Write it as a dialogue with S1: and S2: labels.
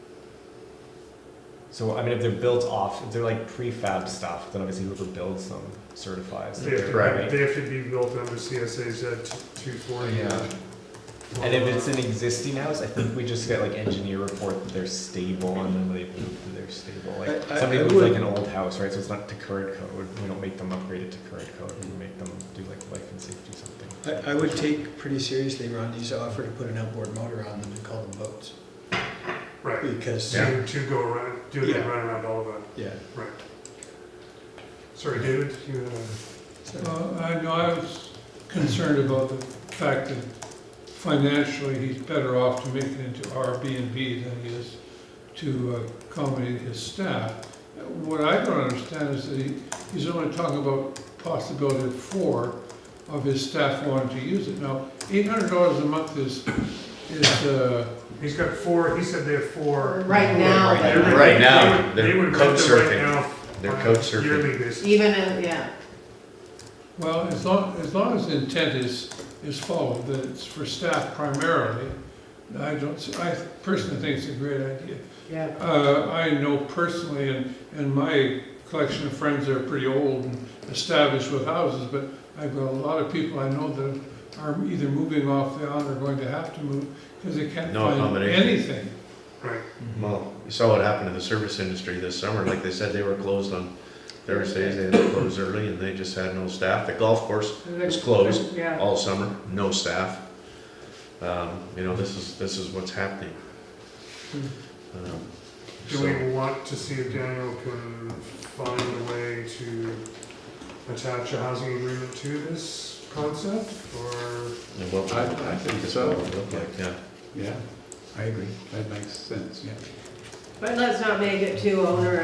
S1: So I mean, if they're built off, if they're like prefab stuff, then obviously whoever builds them certifies. that
S2: They have
S1: they're
S2: to,
S1: right.
S2: they have to be built under CSA Z two forty.
S1: Yeah. And if it's an existing house, I think we just get like engineer report that they're stable and then they prove that they're stable. Like
S3: I- I-
S1: somebody
S3: I
S1: moved
S3: would-
S1: like an old house, right? So it's not to current code. We don't make them upgrade it to current code. We make them do like life and safety something.
S3: I, I would take pretty seriously Rodney's offer to put an outboard motor on them and call them boats,
S2: Right,
S3: because,
S1: Yeah.
S2: to, to go around, do the
S3: Yeah.
S2: run around all of it,
S3: yeah.
S2: right. Sorry, David, you, had a-
S3: so-
S4: Well, I know, I was concerned about the fact that financially, he's better off to make it into Airbnb than he is to accommodate his staff. What I don't understand is that he, he's only talking about possibility of four of his staff wanting to use it. Now, eight hundred dollars a month is, is, uh,
S2: he's got four, he said they have four.
S5: Right now,
S2: They
S5: they
S2: would-
S6: Right
S2: they
S6: now,
S2: would-
S6: they're
S2: they would
S6: couch
S2: rent them right
S6: surfing.
S2: now
S6: They're
S2: on a
S6: couch surfing.
S2: Yearly basis.
S5: even if, yeah.
S4: Well, as long, as long as the intent is, is followed, that it's for staff primarily, I don't, s- I personally think it's a great idea.
S5: Yeah.
S4: Uh, I know personally, and, and my collection of friends are pretty old and established with houses, but I've got a lot of people I know that are either moving off the island or going to have to move, because they can't
S6: No
S4: find
S6: accommodation.
S4: anything.
S2: Right,
S6: Well, you saw what happened in the service industry this summer, like they said, they were closed on Thursdays, they had to close early, and they just had no staff. The golf course was closed
S5: Yeah.
S6: all summer, no staff. Um, you know, this is, this is what's happening. Um,
S2: Hmm. do
S6: so-
S2: we want to see if Daniel can find a way to attach a housing agreement to this concept, or?
S6: And what-
S7: I- I think so.
S6: what it looked like, yeah.
S7: Yeah, I agree. That makes sense, yeah.
S5: But let's not make it too onerous.